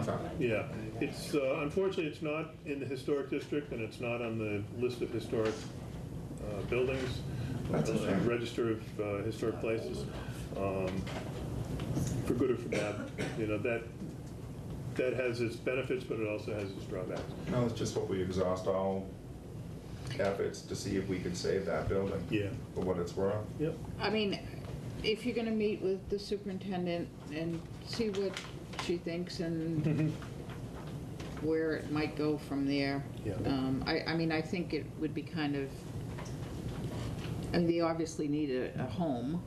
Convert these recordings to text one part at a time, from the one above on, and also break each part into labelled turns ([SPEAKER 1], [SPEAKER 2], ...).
[SPEAKER 1] from.
[SPEAKER 2] Yeah, it's, uh, unfortunately, it's not in the historic district, and it's not on the list of historic uh, buildings,
[SPEAKER 1] That's a shame.
[SPEAKER 2] uh, register of uh, historic places, Um, for good or for bad. You know, that, that has its benefits, but it also has its drawbacks.
[SPEAKER 1] No, it's just what we exhaust all efforts to see if we can save that building.
[SPEAKER 2] Yeah.
[SPEAKER 1] For what it's worth.
[SPEAKER 2] Yep,
[SPEAKER 3] I mean, if you're gonna meet with the superintendent and see what she thinks and where it might go from there.
[SPEAKER 2] Yeah.
[SPEAKER 3] Um, I, I mean, I think it would be kind of, I mean, they obviously need a, a home,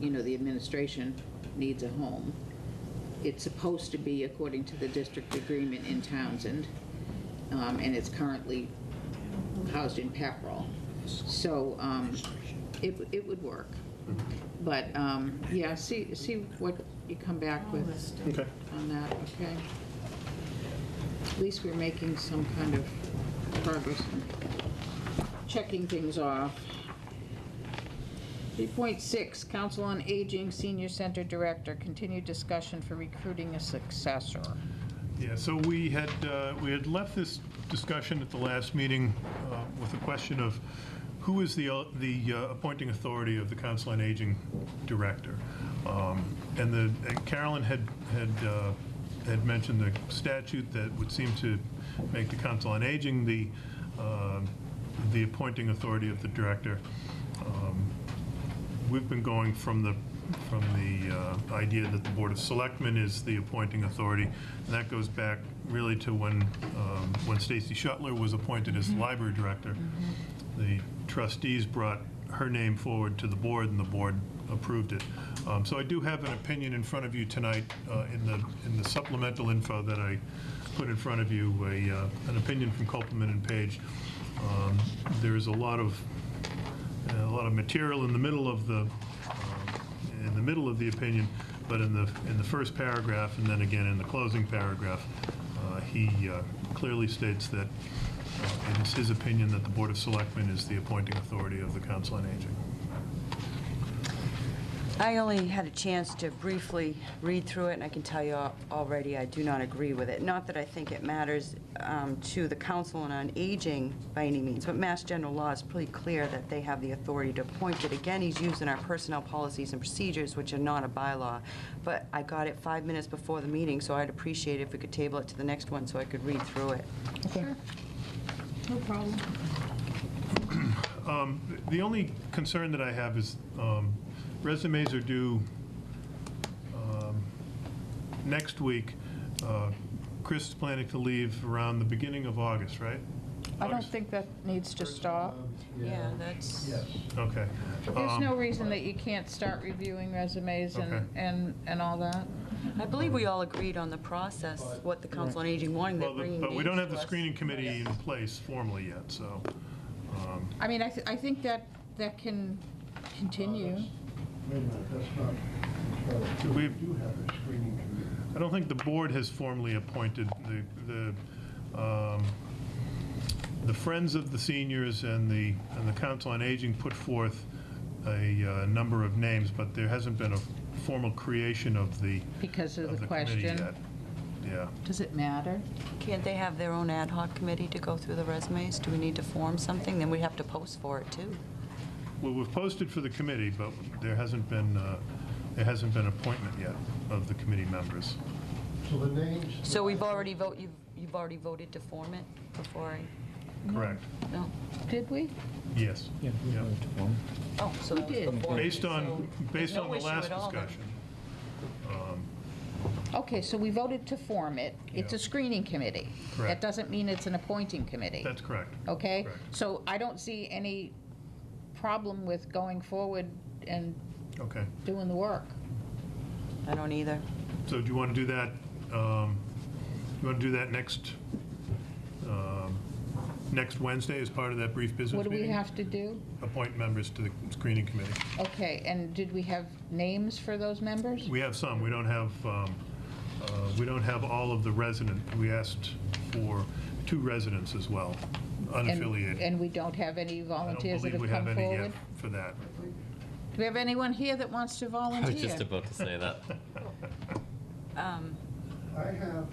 [SPEAKER 3] you know, the administration needs a home. It's supposed to be, according to the district agreement in Townsend, um, and it's currently housed in Pepperell. So, um, it, it would work. But, um, yeah, see, see what you come back with
[SPEAKER 2] okay.
[SPEAKER 3] on that, okay? At least we're making some kind of progress and checking things off. 3.6, Council on Aging Senior Center Director, continued discussion for recruiting a successor.
[SPEAKER 2] Yeah, so we had, uh, we had left this discussion at the last meeting uh, with the question of who is the, uh, the uh, appointing authority of the Council on Aging Director? Um, And the, and Carolyn had, had, uh, had mentioned the statute that would seem to make the Council on Aging the, um, the appointing authority of the director. Um, We've been going from the, from the uh, idea that the Board of Selectmen is the appointing authority, and that goes back really to when, um, when Stacy Shuttler was appointed as library director. The trustees brought her name forward to the board, and the board approved it. Um, So I do have an opinion in front of you tonight, uh, in the, in the supplemental info that I put in front of you, a, uh, an opinion from Copeland and Page. Um, There is a lot of a lot of material in the middle of the, um, in the middle of the opinion, but in the, in the first paragraph, and then again in the closing paragraph, uh, he uh, clearly states that, uh, it is his opinion that the Board of Selectmen is the appointing authority of the Council on Aging.
[SPEAKER 4] I only had a chance to briefly read through it, and I can tell you al- already, I do not agree with it. Not that I think it matters um, to the Council on Aging by any means, but Mass General Law is pretty clear that they have the authority to appoint it. Again, he's using our personnel policies and procedures, which are not a bylaw. But I got it five minutes before the meeting, so I'd appreciate it if we could table it to the next one so I could read through it.
[SPEAKER 3] No problem.
[SPEAKER 2] Um, The only concern that I have is um, resumes are due um, next week. Uh, Chris is planning to leave around the beginning of August, right?
[SPEAKER 3] I don't
[SPEAKER 2] August?
[SPEAKER 3] think that needs to stop.
[SPEAKER 4] Yeah, that's...
[SPEAKER 2] Okay.
[SPEAKER 3] There's
[SPEAKER 2] Um,
[SPEAKER 3] no reason that you can't start reviewing resumes
[SPEAKER 2] Okay.
[SPEAKER 3] and, and, and all that.
[SPEAKER 4] I believe we all agreed on the process, what the Council on Aging wanted, they're
[SPEAKER 2] Well, the-
[SPEAKER 4] bringing
[SPEAKER 2] but we don't
[SPEAKER 4] names
[SPEAKER 2] have the
[SPEAKER 4] to us.
[SPEAKER 2] screening committee in place formally yet, so, um,
[SPEAKER 3] I mean, I, th- I think that, that can continue.
[SPEAKER 5] Wait a minute, that's not, that's not-
[SPEAKER 2] We-
[SPEAKER 5] we do have a screening committee.
[SPEAKER 2] I don't think the board has formally appointed the, the, um, the Friends of the Seniors and the, and the Council on Aging put forth a uh, number of names, but there hasn't been a formal creation of the,
[SPEAKER 3] Because of
[SPEAKER 2] of
[SPEAKER 3] the
[SPEAKER 2] the committee
[SPEAKER 3] question.
[SPEAKER 2] yet. Yeah.
[SPEAKER 3] Does it matter?
[SPEAKER 4] Can't they have their own ad hoc committee to go through the resumes? Do we need to form something? Then we'd have to post for it, too.
[SPEAKER 2] Well, we've posted for the committee, but there hasn't been, uh, there hasn't been appointment yet of the committee members.
[SPEAKER 5] So the names.
[SPEAKER 4] So we've already vote, you've, you've already voted to form it before I,
[SPEAKER 2] Correct.
[SPEAKER 4] no?
[SPEAKER 3] Did we?
[SPEAKER 2] Yes. Yeah.
[SPEAKER 4] Oh, so that was
[SPEAKER 3] did.
[SPEAKER 4] before.
[SPEAKER 2] Based on,
[SPEAKER 4] so
[SPEAKER 2] based
[SPEAKER 4] no
[SPEAKER 2] on the
[SPEAKER 4] issue
[SPEAKER 2] last
[SPEAKER 4] at all then.
[SPEAKER 2] discussion.
[SPEAKER 3] Okay, so we voted to form it. It's
[SPEAKER 2] Yeah.
[SPEAKER 3] a screening committee.
[SPEAKER 2] Correct.
[SPEAKER 3] That doesn't mean it's an appointing committee.
[SPEAKER 2] That's correct.
[SPEAKER 3] Okay?
[SPEAKER 2] correct.
[SPEAKER 3] So I don't see any problem with going forward and
[SPEAKER 2] Okay.
[SPEAKER 3] doing the work.
[SPEAKER 4] I don't either.
[SPEAKER 2] So do you want to do that, um, you want to do that next, um, next Wednesday as part of that brief business
[SPEAKER 3] What do
[SPEAKER 2] meeting?
[SPEAKER 3] we have to do?
[SPEAKER 2] Appoint members to the screening committee.
[SPEAKER 3] Okay, and did we have names for those members?
[SPEAKER 2] We have some, we don't have, um, uh, we don't have all of the resident, we asked for two residents as well,
[SPEAKER 3] And-
[SPEAKER 2] unaffiliated.
[SPEAKER 3] And we don't have any volunteers that have
[SPEAKER 2] I don't
[SPEAKER 3] come
[SPEAKER 2] believe we have any yet
[SPEAKER 3] forward?
[SPEAKER 2] for that.
[SPEAKER 3] Do we have anyone here that wants to
[SPEAKER 6] I was just
[SPEAKER 3] volunteer?
[SPEAKER 6] about to say that.
[SPEAKER 5] I have